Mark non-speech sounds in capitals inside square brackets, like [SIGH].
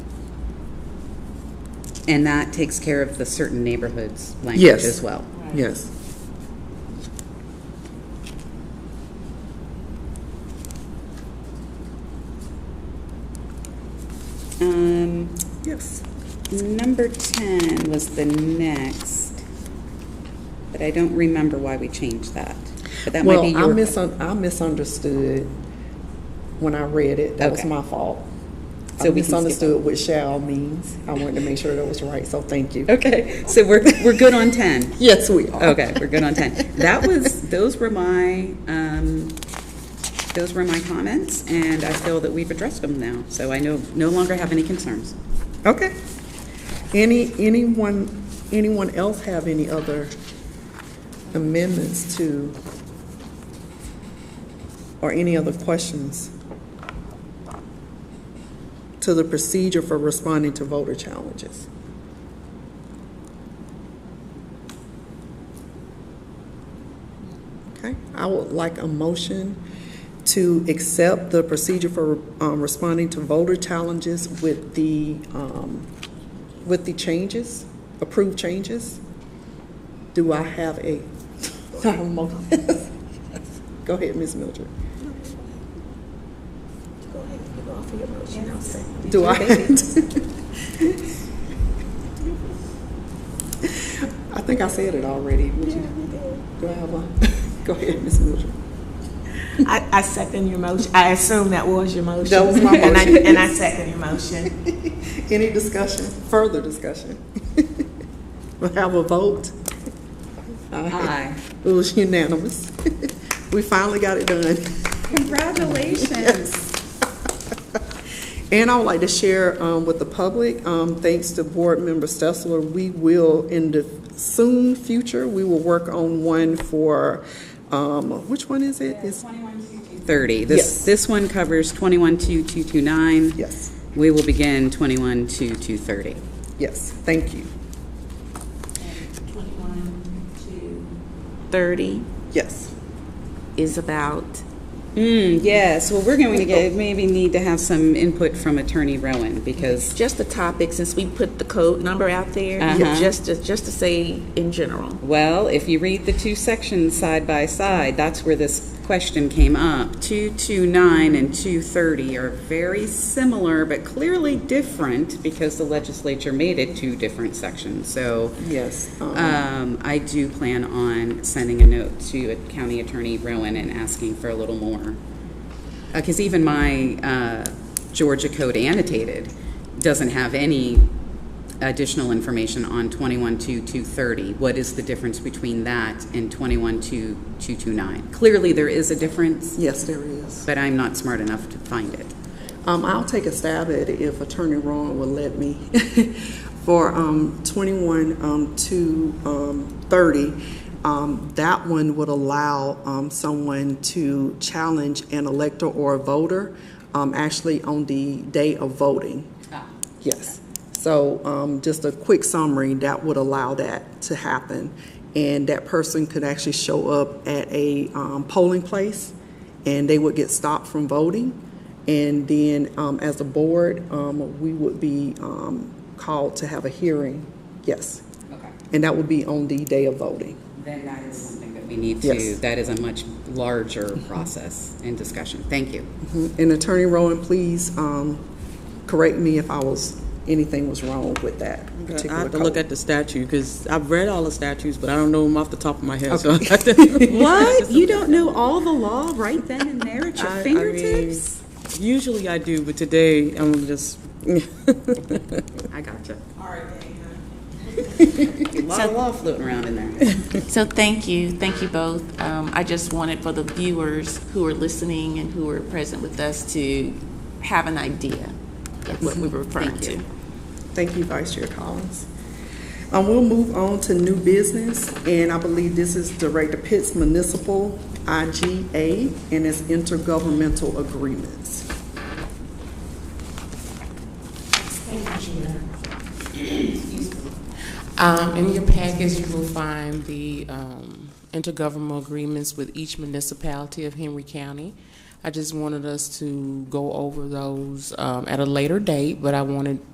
And that takes care of the certain neighborhoods language Yes. as well. Yes. Um, Yes. Number 10 was the next, but I don't remember why we changed that. But that might Well, be I your. misun, I misunderstood when I read it. That was Okay. my fault. So we can I skip misunderstood what shall means. I wanted to make sure that was right, so thank you. [LAUGHS] Okay, so we're, we're good on 10. Yes, we are. Okay, we're good on 10. That was, those were my, um, those were my comments, and I feel that we've addressed them now. So I no, no longer have any concerns. Okay. Any, anyone, anyone else have any other amendments to, or any other questions to the procedure for responding to voter challenges? Okay, I would like a motion to accept the procedure for um, responding to voter challenges with the, um, with the changes, approved changes. Do I have a, [LAUGHS] a mo- [LAUGHS] go ahead, Ms. Mildred. Go ahead, give off your motion, Do [LAUGHS] I? I think I said it already, would you? Do I have a, [LAUGHS] go ahead, Ms. Mildred. I, I second your motion. I assume that was your motion. That was my And I, motion. and I second your motion. Any discussion, further discussion? [LAUGHS] We'll have a vote. Aye. It was unanimous. [LAUGHS] We finally got it done. Congratulations. And I would like to share um, with the public, um, thanks to Board Member Stessler, we will, in the soon future, we will work on one for, um, which one is it? It's- 30. This, Yes. this one covers 212229. Yes, We will begin 212230. yes, thank you. Thirty Yes. is about, Mm, yes, well, we're going to get, maybe need to have some input from Attorney Rowan, because, just the topic, since we put the code number out there, Uh-huh. just to, just to say in general. well, if you read the two sections side by side, that's where this question came up. 229 and 230 are very similar, but clearly different, because the legislature made it two different sections, so. Yes. um, Um, I do plan on sending a note to County Attorney Rowan and asking for a little more. Because even my uh, Georgia code annotated doesn't have any additional information on 212230. What is the difference between that and 212229? Clearly, there is a difference, Yes, there is. but I'm not smart enough to find it. Um, I'll take a stab at it if Attorney Rowan will let me. [LAUGHS] For um, 21 um, to um, 30, um, that one would allow um, someone to challenge an elector or a voter um, actually on the day of voting. Yes. So um, just a quick summary, that would allow that to happen. And that person could actually show up at a um, polling place and they would get stopped from voting. And then um, as a board, um, we would be um, called to have a hearing. Yes. Okay. And that would be on the day of voting. Then that is something that we need to, Yes. that is a much larger process and discussion. Thank you. Mhm. And Attorney Rowan, please um, correct me if I was, anything was wrong with that I particular have to look code. at the statute, because I've read all the statutes, but I don't know them off the top of my head, so. [LAUGHS] [LAUGHS] What? You don't know all the law right then and there at your fingertips? Usually I do, but today I'm just, I, gotcha. All right, A lot of law floating around in there. So thank you, thank you both. Um, I just wanted for the viewers who are listening and who are present with us to have an idea of what we were referring Thank you. to. Thank you, Vice Chair Collins. Um, we'll move on to new business, and I believe this is Director Pitts Municipal IGA and its intergovernmental agreements. Um, in your package, you will find the, um, intergovernmental agreements with each municipality of Henry County. I just wanted us to go over those, um, at a later date, but I wanted